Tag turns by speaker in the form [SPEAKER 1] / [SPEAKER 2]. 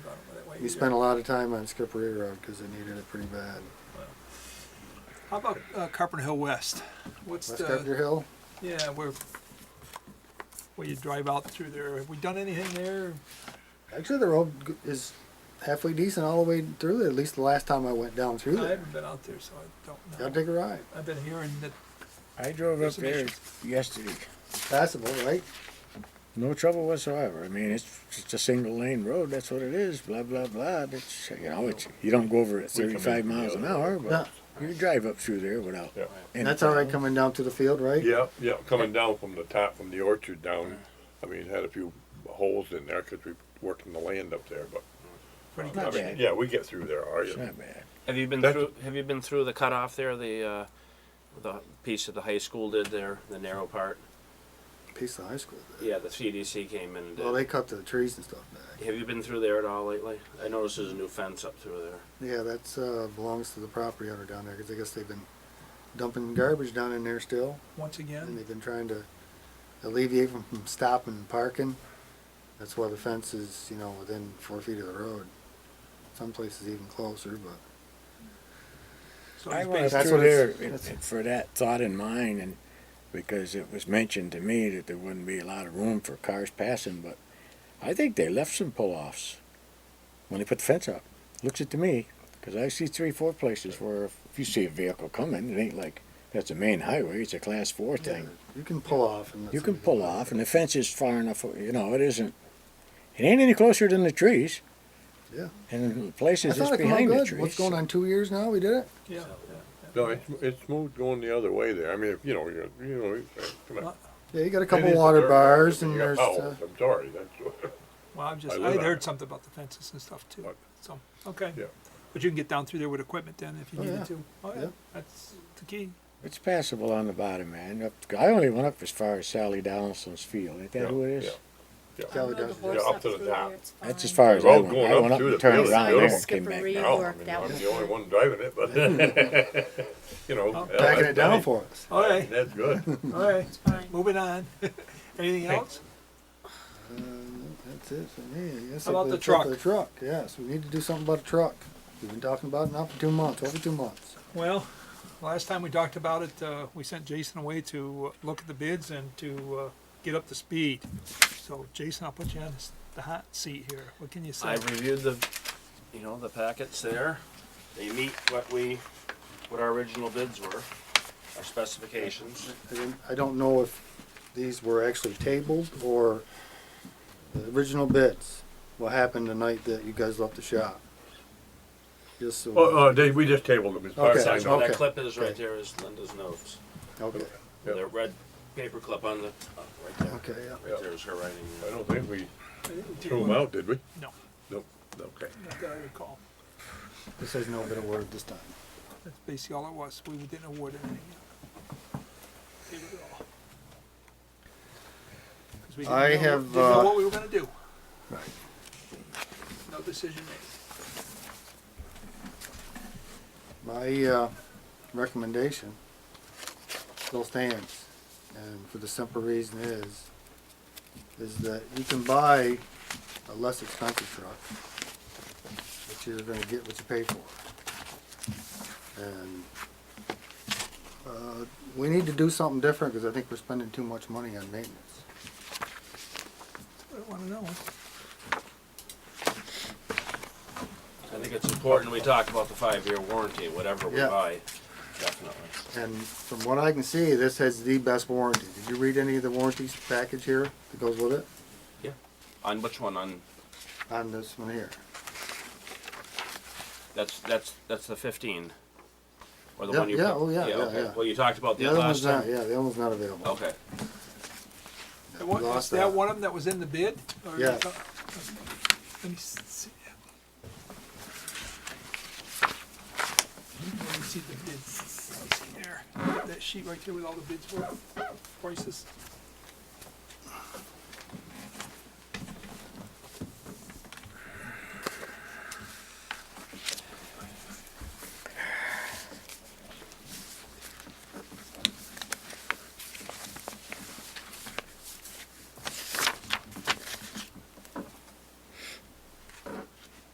[SPEAKER 1] way.
[SPEAKER 2] We spent a lot of time on Skippery Road because they needed it pretty bad.
[SPEAKER 1] How about uh, Carpenter Hill West? What's
[SPEAKER 2] West
[SPEAKER 1] the
[SPEAKER 2] Carpenter Hill,
[SPEAKER 1] yeah where where you drive out through there? Have we done anything there?
[SPEAKER 2] actually the road g- is halfway decent all the way through there, at least the last time I went down through
[SPEAKER 1] I
[SPEAKER 2] there.
[SPEAKER 1] haven't been out there, so I don't know.
[SPEAKER 2] Gotta take a ride.
[SPEAKER 1] I've been hearing that
[SPEAKER 3] I drove
[SPEAKER 1] There's
[SPEAKER 3] up
[SPEAKER 1] some
[SPEAKER 3] there
[SPEAKER 1] issues.
[SPEAKER 3] yesterday.
[SPEAKER 2] Passable, right?
[SPEAKER 3] No trouble whatsoever. I mean, it's just a single lane road. That's what it is. Blah blah blah. It's you know, it's you don't go over it
[SPEAKER 4] We come in
[SPEAKER 3] 35 miles
[SPEAKER 4] from
[SPEAKER 3] an
[SPEAKER 4] the other
[SPEAKER 3] hour, but you drive up through there without.
[SPEAKER 4] Yeah.
[SPEAKER 3] any
[SPEAKER 2] And that's all right
[SPEAKER 3] problem.
[SPEAKER 2] coming down to the field, right?
[SPEAKER 4] Yeah, yeah, coming down from the top, from the orchard down, I mean, it had a few holes in there because we worked in the land up there, but.
[SPEAKER 1] pretty
[SPEAKER 3] Not
[SPEAKER 4] I
[SPEAKER 1] much.
[SPEAKER 3] bad.
[SPEAKER 4] mean, yeah, we get through there, are
[SPEAKER 3] It's
[SPEAKER 4] you?
[SPEAKER 3] not bad.
[SPEAKER 5] Have you been
[SPEAKER 4] That's-
[SPEAKER 5] through? Have you been through the cutoff there? The uh, the piece that the high school did there, the narrow part.
[SPEAKER 2] Piece of high school. there.
[SPEAKER 5] Yeah, the CDC came in and did.
[SPEAKER 2] Well, they cut the trees and stuff back.
[SPEAKER 5] have you been through there at all lately? I noticed there's a new fence up through there.
[SPEAKER 2] Yeah, that's, uh, belongs to the property owner down there, cause I guess they've been dumping garbage down in there still.
[SPEAKER 1] Once
[SPEAKER 2] And
[SPEAKER 1] again,
[SPEAKER 2] they've been trying to alleviate them from stopping and parking. That's why the fence is, you know, within four feet of the road. Some places even closer, but
[SPEAKER 1] so
[SPEAKER 3] I
[SPEAKER 1] it's
[SPEAKER 3] went
[SPEAKER 1] based,
[SPEAKER 3] up
[SPEAKER 2] That's
[SPEAKER 3] through
[SPEAKER 2] what
[SPEAKER 3] there
[SPEAKER 2] it's- that's-
[SPEAKER 3] for that thought in mind, and because it was mentioned to me that there wouldn't be a lot of room for cars passing, but I think they left some pull-offs when they put the fence up. Looks it to me, because I see three, four places where if you see a vehicle coming, it ain't like that's a main highway; it's a class four thing.
[SPEAKER 2] you can pull off and.
[SPEAKER 3] You can pull off, and the fence is far enough. You know, it isn't. It ain't any closer than the trees.
[SPEAKER 2] Yeah.
[SPEAKER 3] And the
[SPEAKER 2] I
[SPEAKER 3] places is
[SPEAKER 2] thought it come out
[SPEAKER 3] behind the
[SPEAKER 2] good.
[SPEAKER 3] trees.
[SPEAKER 2] What's going on, two years now we did it?
[SPEAKER 1] yeah.
[SPEAKER 4] No, it's, it's moved going the other way there, I mean, if, you know, you you know, you- come on.
[SPEAKER 1] Well,
[SPEAKER 2] Yeah, you got a
[SPEAKER 4] It
[SPEAKER 2] couple
[SPEAKER 4] is
[SPEAKER 2] water
[SPEAKER 4] dirt, Oh.
[SPEAKER 2] bars
[SPEAKER 4] but you
[SPEAKER 2] and
[SPEAKER 4] got
[SPEAKER 2] there's, uh,
[SPEAKER 4] potholes, I'm sorry, that's,
[SPEAKER 1] Well, I'm just
[SPEAKER 4] I
[SPEAKER 1] I,
[SPEAKER 4] live
[SPEAKER 1] would
[SPEAKER 4] out
[SPEAKER 1] heard
[SPEAKER 4] there.
[SPEAKER 1] something about the fences and stuff too.
[SPEAKER 4] What?
[SPEAKER 1] So okay,
[SPEAKER 4] Yeah.
[SPEAKER 1] but you can get down through there with equipment then if you
[SPEAKER 2] Oh,
[SPEAKER 1] needed
[SPEAKER 2] yeah.
[SPEAKER 1] to. Oh yeah,
[SPEAKER 2] Yeah.
[SPEAKER 1] that's the key.
[SPEAKER 3] It's passable on the bottom, man. Up I only went up as far as Sally Donaldson's field. Ain't that
[SPEAKER 4] Yeah,
[SPEAKER 3] who it is?
[SPEAKER 4] yeah.
[SPEAKER 2] Yeah,
[SPEAKER 4] yeah.
[SPEAKER 2] we
[SPEAKER 6] Well,
[SPEAKER 2] don't-
[SPEAKER 6] the horse
[SPEAKER 4] Yeah, up to the
[SPEAKER 6] through there,
[SPEAKER 4] top.
[SPEAKER 6] it's
[SPEAKER 3] That's as
[SPEAKER 6] fine.
[SPEAKER 3] far as I
[SPEAKER 4] Road
[SPEAKER 3] went.
[SPEAKER 4] going
[SPEAKER 3] I
[SPEAKER 4] up
[SPEAKER 3] went up
[SPEAKER 4] through
[SPEAKER 3] and
[SPEAKER 4] the
[SPEAKER 3] turned
[SPEAKER 4] field,
[SPEAKER 3] around
[SPEAKER 4] it's
[SPEAKER 3] there
[SPEAKER 4] beautiful.
[SPEAKER 3] and came back
[SPEAKER 6] Skippery.
[SPEAKER 3] down.
[SPEAKER 4] No, I
[SPEAKER 6] worked
[SPEAKER 4] mean,
[SPEAKER 6] out.
[SPEAKER 4] I'm the only one driving it, but, you know. uh,
[SPEAKER 1] Oh.
[SPEAKER 2] backing it down for us.
[SPEAKER 1] All right,
[SPEAKER 4] That's good.
[SPEAKER 1] all right.
[SPEAKER 6] It's fine.
[SPEAKER 1] Moving on. Anything else?
[SPEAKER 2] Uh, That's it for me. I guess
[SPEAKER 1] How about
[SPEAKER 2] if
[SPEAKER 1] the
[SPEAKER 2] it's up to
[SPEAKER 1] truck?
[SPEAKER 2] The truck, yes, we need to do something about the truck. We've been talking about it now for two months, over two months.
[SPEAKER 1] Well, last time we talked about it, uh, we sent Jason away to uh, look at the bids and to uh, get up to speed. So Jason, I'll put you on this- the hot seat here. What can you say?
[SPEAKER 5] I reviewed the, you know, the packets there. They meet what we, what our original bids were, our specifications.
[SPEAKER 2] I didn't- I don't know if these were actually tabled or the original bids, what happened the night that you guys left the shop. Just so.
[SPEAKER 4] Oh, oh, they, we just tabled them, as far as I
[SPEAKER 5] That's
[SPEAKER 2] Okay.
[SPEAKER 4] know.
[SPEAKER 5] where
[SPEAKER 2] Okay.
[SPEAKER 5] that clip is right
[SPEAKER 2] Okay.
[SPEAKER 5] there is Linda's notes.
[SPEAKER 2] Okay,
[SPEAKER 4] Yeah.
[SPEAKER 5] The red paper clip on the, oh, right there.
[SPEAKER 2] okay, yeah.
[SPEAKER 5] Right there is her writing.
[SPEAKER 4] I don't think we threw them out, did we?
[SPEAKER 1] No,
[SPEAKER 4] Nope, okay.
[SPEAKER 1] not that I recall.
[SPEAKER 2] This has no bit of word this time.
[SPEAKER 1] That's basically all it was. We didn't award anything. They were all- 'Cause we didn't
[SPEAKER 2] I
[SPEAKER 1] know-
[SPEAKER 2] have,
[SPEAKER 1] Didn't know
[SPEAKER 2] uh,
[SPEAKER 1] what we were gonna do. No decision made.
[SPEAKER 2] My, uh, recommendation still stands, and for the simple reason is, is that you can buy a less expensive truck, but you're gonna get what you pay for. And, uh, we need to do something different, cause I think we're spending too much money on maintenance.
[SPEAKER 1] I don't wanna know.
[SPEAKER 5] I think it's important we talk about the five-year warranty, whatever we
[SPEAKER 2] Yeah.
[SPEAKER 5] buy, definitely.
[SPEAKER 2] And from what I can see, this has the best warranty. Did you read any of the warranties package here that goes with it?
[SPEAKER 5] On which one? On,
[SPEAKER 2] On this one here?
[SPEAKER 5] that's, that's, that's the fifteen? Or the
[SPEAKER 2] Yeah,
[SPEAKER 5] one you?
[SPEAKER 2] yeah,
[SPEAKER 5] put-
[SPEAKER 2] oh, yeah, yeah,
[SPEAKER 5] okay.
[SPEAKER 2] yeah.
[SPEAKER 5] Well, you talked about
[SPEAKER 2] The
[SPEAKER 5] that
[SPEAKER 2] other
[SPEAKER 5] last
[SPEAKER 2] one's not,
[SPEAKER 5] time.
[SPEAKER 2] yeah, the other one's not available.
[SPEAKER 5] Okay.
[SPEAKER 1] That one-
[SPEAKER 2] Lost
[SPEAKER 1] Is that
[SPEAKER 2] that.
[SPEAKER 1] one of them that was in the bid? Or you
[SPEAKER 2] Yeah.
[SPEAKER 1] thought- Let me s- see that. one. Let me see the bids, Let's see there, that sheet right there with all the bids were, prices.